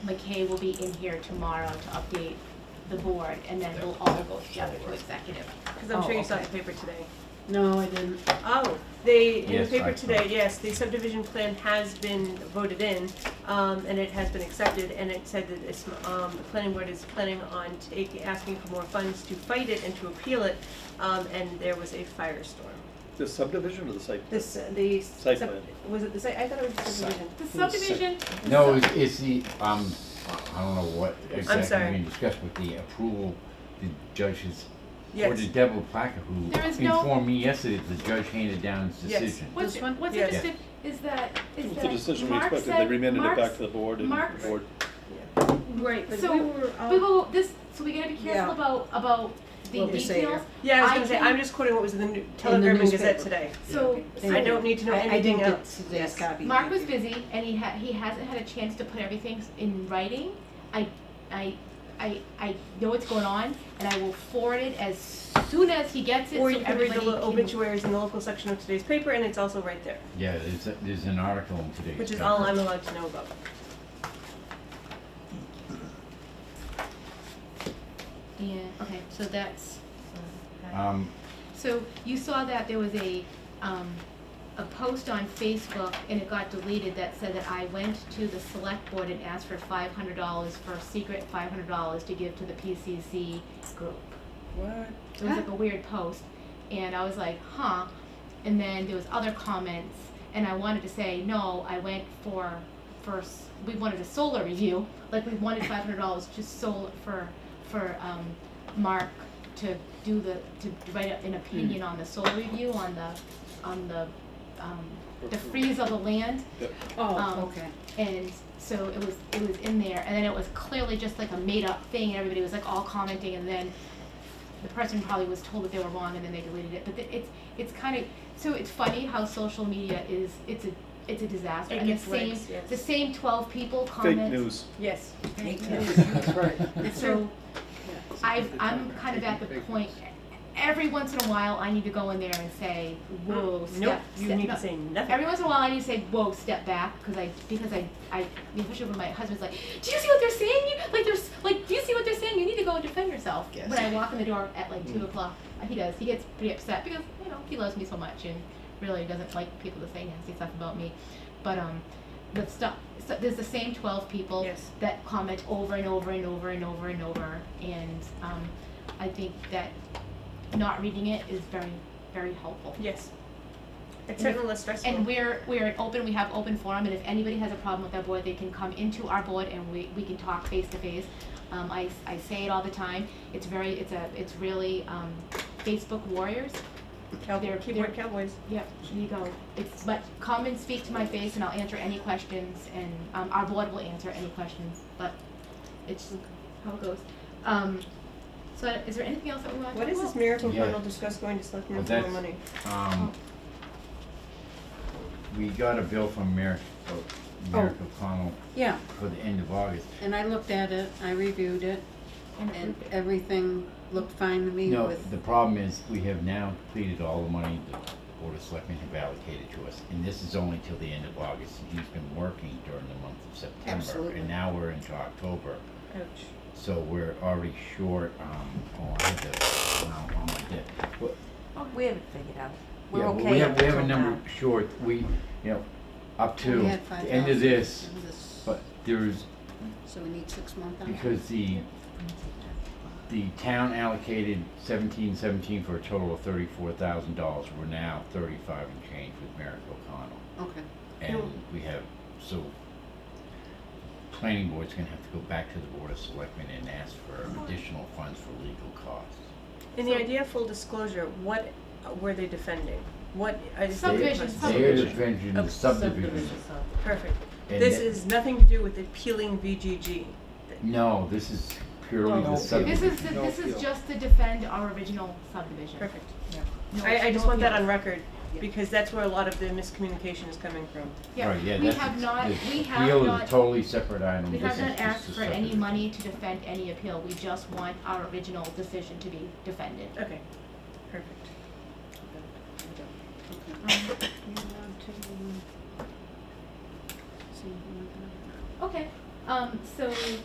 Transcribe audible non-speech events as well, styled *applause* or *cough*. McKay will be in here tomorrow to update the board, and then we'll all go together to executive. Because I'm Oh, sure you saw okay. the paper today. No, I didn't. Oh, they, in the Yes, I paper saw. today, yes, the subdivision plan has been voted in, um, and it has been accepted, and it said that it's, um, the planning board is planning on taking, asking for more funds to fight it and to appeal it, um, and there was a firestorm. The subdivision or the site? plan? This, the. Site sub- plan. Was it the site, I thought it was the subdivision. The subdivision, No, it's, it's the, um, I don't know what sorry. exactly we discussed, but the approval, the judge's, or the Yes, Devil Placa, who There is no- informed me yesterday that the judge handed down his Yes. decision. what's, This one? what's Yeah. interesting is that, It is was that the decision we Mark expected, they said- remanded it Mark's- back to the board and the Mark's- board, Right, But so, we were, we um, will, this, so we gotta be careful Yeah. about, about the What we say details. yeah, I was I gonna say, can- I'm just quoting what was in the New- Telegram and Gazette newspaper. today. So, I don't need to know I- anything I didn't get else. today's Yes. copy. Mark was busy and he ha- he hasn't had a chance to put everything s- in writing. I, I, I, I know what's going on and I will forward it as soon as he gets it Or so you can read everybody the can. lo- obituaries in the local section of today's paper, and it's also right there, Yeah, there's, a- there's an article in today's. which is paper. all I'm allowed to know about. Yeah, okay, so that's, Um, so you saw that there was a, um, a post on Facebook and it got deleted that said that I went to the select board and asked for five hundred dollars for a secret five hundred dollars to give to the PCC group. What? It was like a weird post, and I was like, huh. And then there was other comments, and I wanted to say no. I went for first. We wanted a solar review, like we wanted five hundred dollars just solar for for um, Mark to do the to write an opinion on the solar review on the on the um, the freeze of the land Um, Oh, okay. and so it was it was in there and then it was clearly just like a made up thing and everybody was like all commenting and then the person probably was told that they were wrong and then they deleted it but the, it's it's kind of so it's funny how social media is it's a it's a disaster It and the gets same legs, yes. the same 12 people comment fake news. Yes. Fake Yeah. news, that's right. so I've, I'm kind of at the point every once in a while I need to go in there and say whoa step, Um, Nope, you step- need no, to say nothing. Every once in a while, I need to say, "Whoa, step back," because I because I I especially when my husband's like, "Do you see what they're saying? You, like there's like do you see what they're saying? You need to go and defend yourself." Yes. When I walk in the door at like two o'clock, uh, he does. He gets pretty upset because you know he loves me so much and really doesn't like people to say nasty stuff about me. But um, the stuff so there's the same twelve people Yes. that comment over and over and over and over and over, and um, I think that not reading it is very very helpful. Yes. It's And if- certainly less stressful. And we're, we're an open, we have open forum, and if anybody has a problem with our board, they can come into our board and we, we can talk face to face. Um, I, I say it all the time, it's very, it's a, it's really, um, Facebook warriors, Cowboy, they're- keyboard they're- cowboys. yep, you go. It's, but come and speak to my face and I'll answer any questions, and, um, our board will answer any questions, but it's how it goes. Um, so is there anything else that we want to What talk is about? this miracle Yeah. fund will discuss going to selectmen Well, for more that's- money? *laughs* Um, we got a bill from Merrick, Merrick Oh. O'Connell *laughs* Yeah, for the end of August. and I looked at it, I reviewed it, and everything looked fine to me No, with, the problem is, we have now completed all the money the Board of Selectmen have allocated to us, and this is only till the end of August, and he's been working during the month of September. Absolutely. And now we're into October, Ouch. so we're already short, um, oh, I had to, no, oh, I did. Well, Oh, We haven't figured out. We're Yeah, but okay. we have, we have until a now. number short, we, you know, up to We had the end of 5,000. this, this- but there's, so we need six more thousand. because the, the town allocated seventeen seventeen for a total of thirty-four thousand dollars, we're now thirty-five and change with Merrick O'Connell. Okay, And Mm. we have, so, planning board's gonna have to go back to the Board of Selectmen and ask for Mm. additional funds for legal costs. In the idea of full disclosure, what uh, were they defending? What I just have a Subdivision, question. sub- They're defending the Of subdivision. Perfect. and This that- is nothing to do with appealing VGG. No, this is purely the No, Oh, This subdivision. is, the- this is just to defend our original subdivision. Perfect. No- I, I just no want that appeals. on record because that's where a lot of the miscommunication is coming from. Yeah, Right, yeah, we that's have ex- not, the we have appeal is a not, totally separate item. we This have is not just asked a for any subdivision. money to defend any appeal. We just want our original decision to be defended. Okay. Perfect. okay. You want to, see, you want to- Okay, Um, so